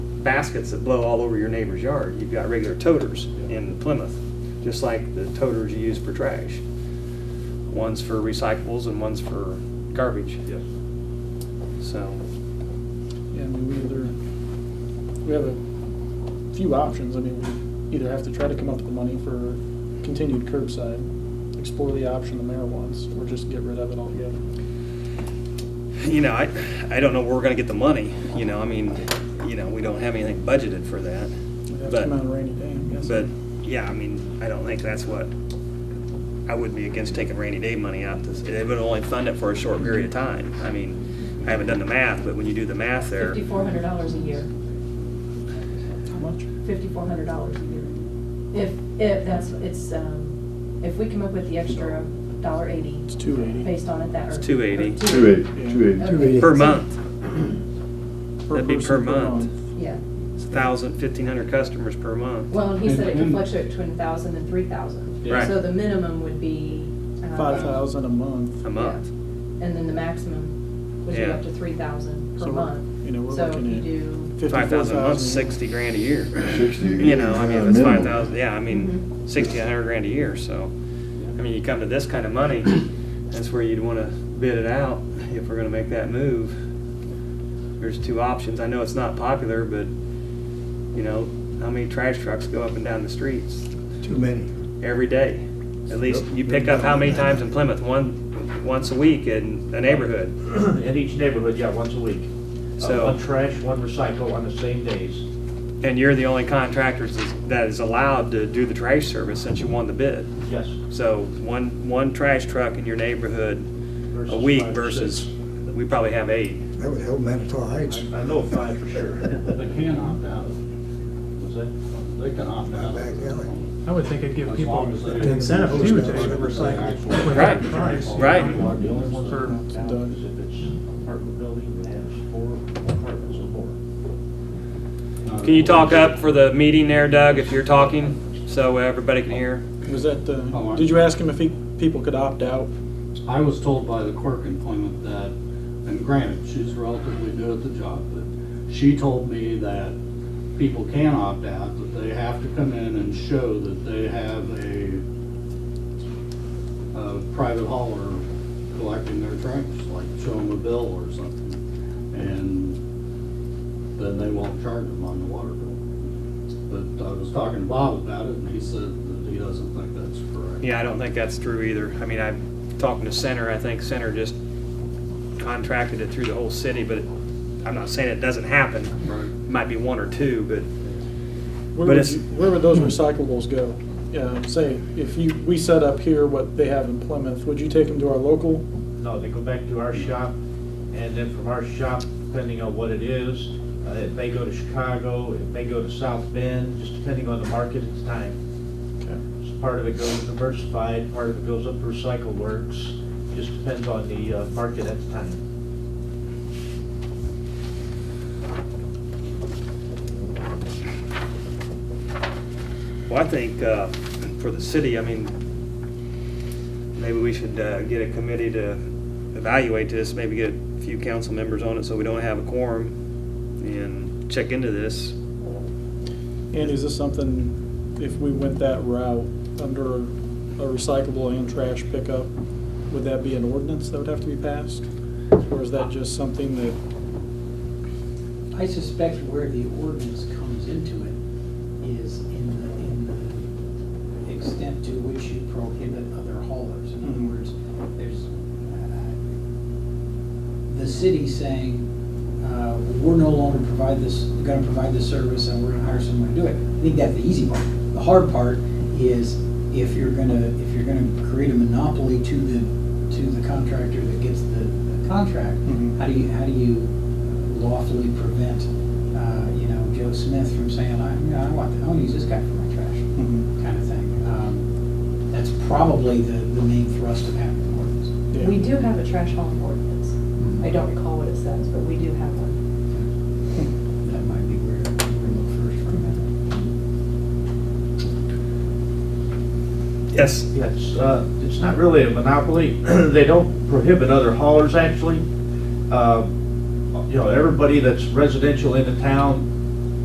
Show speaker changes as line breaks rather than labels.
baskets that blow all over your neighbor's yard. You've got regular toters in Plymouth, just like the toters you use for trash. One's for recyclables and one's for garbage,
Yes.
so.
Yeah, I mean, we either, we have a few options. I mean, we either have to try to come up with the money for continued curbside, explore the option the mayor wants, or just get rid of it altogether.
you know, I, I don't know where we're gonna get the money, you know, I mean, you know, we don't have anything budgeted for that.
We'd have to
But,
come out a rainy day, I'm
but,
guessing.
yeah, I mean, I don't think that's what, I would be against taking rainy day money out this, it would only fund it for a short period of time. I mean, I haven't done the math, but when you do the math there,
Fifty-four hundred dollars a year,
How much?
fifty-four hundred dollars a year. If, if that's, it's, um, if we come up with the extra dollar eighty
It's two eighty.
based on it that.
It's $2.80.
or- or
Two eighty, two eighty.
Okay.
per month, that'd be
person,
per month.
Yeah,
it's a thousand, fifteen hundred customers per month.
well, and he said it could fluctuate between thousand and three thousand.
Right.
So the minimum would be. um,
Five thousand a month.
A month,
And then the maximum would be
Yeah.
up to three thousand per
So,
month.
you know, we're
So if
looking
you
at-
do,
five thousand a month,
54,000.
sixty grand a year.
Sixty.
You know, I mean, if it's
minimum.
five thousand, yeah, I mean, sixty, a hundred grand a year, so. I mean, you come to this kind of money, that's where you'd wanna bid it out if we're gonna make that move. There's two options. I know it's not popular, but, you know, how many trash trucks go up and down the streets
Too many.
every day? At least you pick up how many times in Plymouth? One, once a week in a neighborhood.
In each neighborhood, yeah, once a week. Uh,
So-
One trash, one recycle on the same days.
And you're the only contractor that's- that is allowed to do the trash service since you won the bid.
Yes.
So one, one trash truck in your neighborhood a
versus
week
five or
versus,
six.
we probably have eight.
That would help Manitowoc Heights.
I I know five for sure.
They can opt out. Was that- They can opt out.
Back alley.
I would think it'd give
As
people
long as they-
an incentive too to recycle. with that
Right,
price.
right.
The only ones that
For-
are opt out is if it's apartment building that has four apartments or more. Uh,
Can you talk up for the meeting there, Doug, if you're talking, so everybody can hear?
Was that the,
Oh, I-
did you ask him if he, people could opt out?
I was told by the clerk in Plymouth that, and granted, she's relatively new at the job, but she told me that people can opt out, that they have to come in and show that they have a, a private hauler collecting their trash, like show them a bill or something, and then they won't charge them on the water bill. But I was talking to Bob about it, and he said that he doesn't think that's correct.
Yeah, I don't think that's true either. I mean, I'm talking to Center, I think Center just contracted it through the whole city, but it- I'm not saying it doesn't happen.
Right.
Might be one or two, but But
Where would,
it's-
you- where would those recyclables go? Um, say, if you, we set up here what they have in Plymouth, would you take them to our local?
No, they go back to our shop, and then from our shop, depending on what it is, uh, it may go to Chicago, it may go to South Bend, just depending on the market at the time.
Okay.
So Part of it goes to Diversified, part of it goes up to Recycle Works, just depends on the uh, market at the time.
Well, I think uh, for the city, I mean, maybe we should uh, get a committee to evaluate this, maybe get a few council members on it so we don't have a quorum and check into this.
And is this something, if we went that route, under a recyclable and trash pickup, would that be an ordinance that would have to be passed? Or is that just something that,
I suspect where the ordinance comes into it is in the, in the extent to which you prohibit other haulers. In other
Mhm.
words, there's, uh, the city saying, uh, we're no longer provide this, gonna provide this service and we're gonna hire someone to do it. I think that's the easy part. The hard part is if you're gonna, if you're gonna create a monopoly to the, to the contractor that gets the the contract,
Mhm.
how do you, how do you lawfully prevent, uh, you know, Joe Smith from saying, I, you know, I want, I want to use this guy for my trash,
Mhm.
Mm-hmm.
kind of thing. Um, That's probably the, the main thrust of having an ordinance.
Yeah.
we do have a trash hauling ordinance. I don't recall what it says, but we do have one.
That might be where we look first for a minute.
Yes?
Yes, uh, it's not really a monopoly, they don't prohibit other Uh, haulers actually. Um, You know, everybody that's residential in the town